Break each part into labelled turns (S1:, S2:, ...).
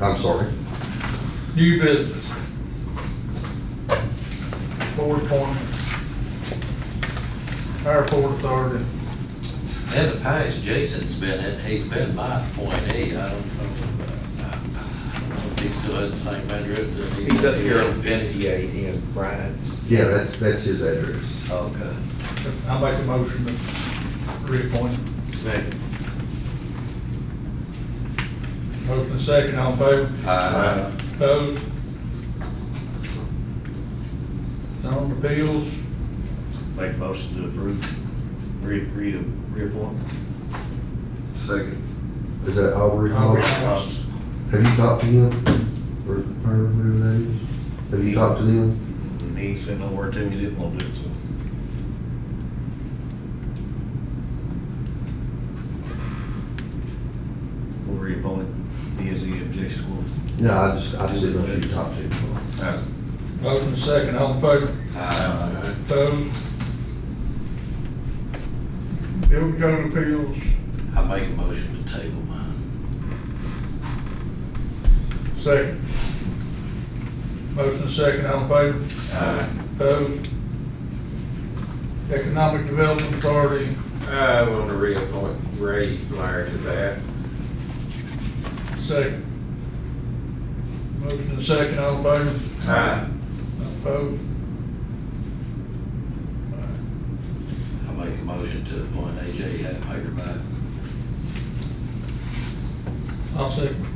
S1: I'm sorry.
S2: New business. Board appointment. Our board authority.
S3: In the past, Jason's been, in- he's been my point eight, I don't know, uh, I don't know if he still has the same address, does he?
S4: He's up here on
S3: Infinity.
S4: fifty-eight in Bryant's.
S1: Yeah, that's, that's his address.
S2: Oh.
S3: Okay.
S2: I make the motion to reappoint.
S4: Second.
S2: Motion and second, all in favor?
S3: Uh,
S2: Opposed? Zone appeals,
S5: Make motion to approve, re, re, reappoint.
S1: Second. Is that Aubrey Hall?
S2: Aubrey Hall.
S5: Hobbs.
S1: Have you talked to him? Or her, whoever that is? Have you talked to them?
S5: And he ain't said no word to me, didn't want to do it, so. We'll reappoint him. He has any objections, we'll.
S1: No, I just, I just didn't know if you talked to him.
S2: motion and second, all in favor?
S3: uh,
S2: Opposed? Building code appeals,
S3: I make a motion to table mine.
S2: second. Motion and second, all in favor? Opposed? Economic Development Authority,
S4: I want to reappoint Ray Flyer to that.
S2: second. Motion and second, all in favor?
S4: Aye.
S2: Opposed?
S3: I make a motion to appoint AJ Hatmaker back.
S2: I'll second.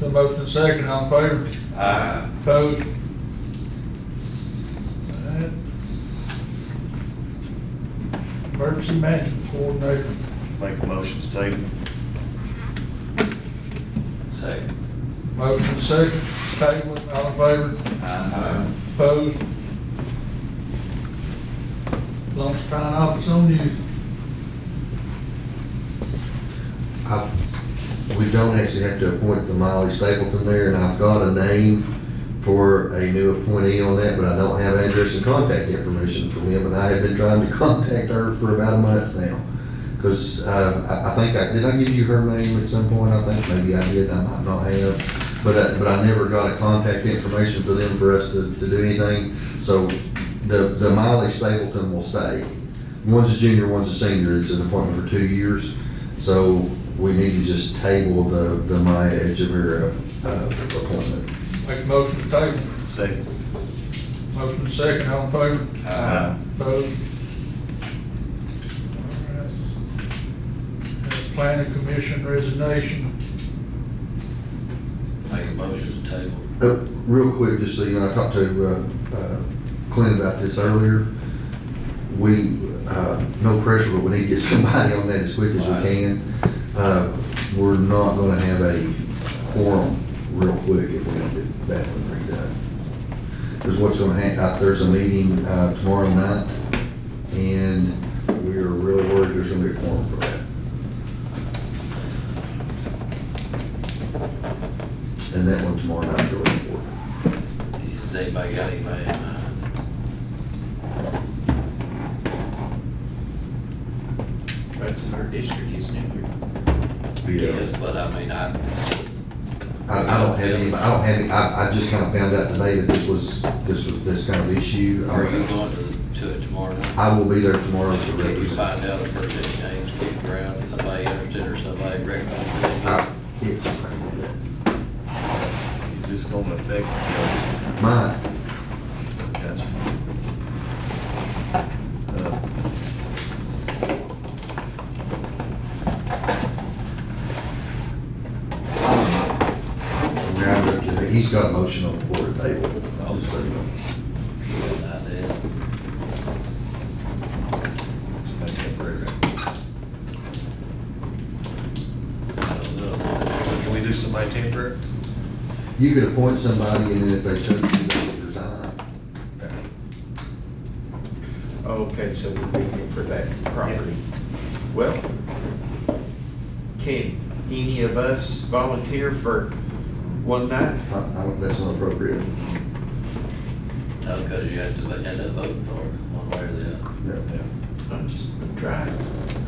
S2: The motion and second, all in favor?
S3: Aye.
S2: Opposed? Alright. Emergency Management Coordinator,
S5: Make a motion to table.
S3: Second.
S2: motion and second, table, it, all in favor?
S3: Aye.
S2: Opposed? Lumps Pine Office on Youth.
S1: I, we don't actually have to appoint the Miley Stapleton there, and I've got a name for a new appointee on that, but I don't have address and contact information from him, and I have been trying to contact her for about a month now. Because, uh, I, I think I, did I give you her name at some point? I think maybe I did, I might not have. But I, but I never got a contact information for them for us to, to do anything. So the, the Miley Stapleton will stay. One's a junior, one's a senior. It's an appointment for two years. So we need to just table the, the Maya Echeverria, uh, appointment.
S2: Make a motion to table,
S5: Second.
S2: motion and second, all in favor?
S5: Aye.
S2: Opposed? Alright. Planning Commission resignation,
S3: Make a motion to table.
S1: Uh, Real quick, just so you know, I talked to uh, uh, Clint about this earlier. We, uh, no pressure, but we need to get somebody on that as quick as
S3: Right.
S1: we can. Uh, We're not gonna have a quorum real quick if we don't get that one redone. Because what's gonna happen, there's a meeting uh, tomorrow night, and we are really worried there's gonna be a quorum for that. And that one tomorrow night's really important.
S3: Has anybody got anybody in mind?
S4: That's in our district, isn't it?
S3: Yes, but I mean, I,
S1: I, I don't have any, I don't have any, I, I just kind of found out today that this was, this was, this kind of issue.
S3: are you going to, to it tomorrow night?
S1: I will be there tomorrow to
S3: Can you
S1: represent.
S3: find out if there's any names kicking around, somebody interested or somebody recommended?
S1: I- yeah.
S5: Is this gonna affect?
S1: My,
S5: Gotcha. Uh,
S1: round up today, he's got a motion on the board table. I'll just let you know.
S3: I did.
S5: Somebody can approve it.
S3: I don't know.
S5: Can we do somebody temporary?
S1: You could appoint somebody and then if they chose to, they could resign.
S4: Okay, so we're looking for that property. Well, can any of us volunteer for one night?
S1: I, I don't, that's not appropriate.
S3: No, because you have to end up voting for it, one way or the other.
S1: No.
S4: I'm just trying.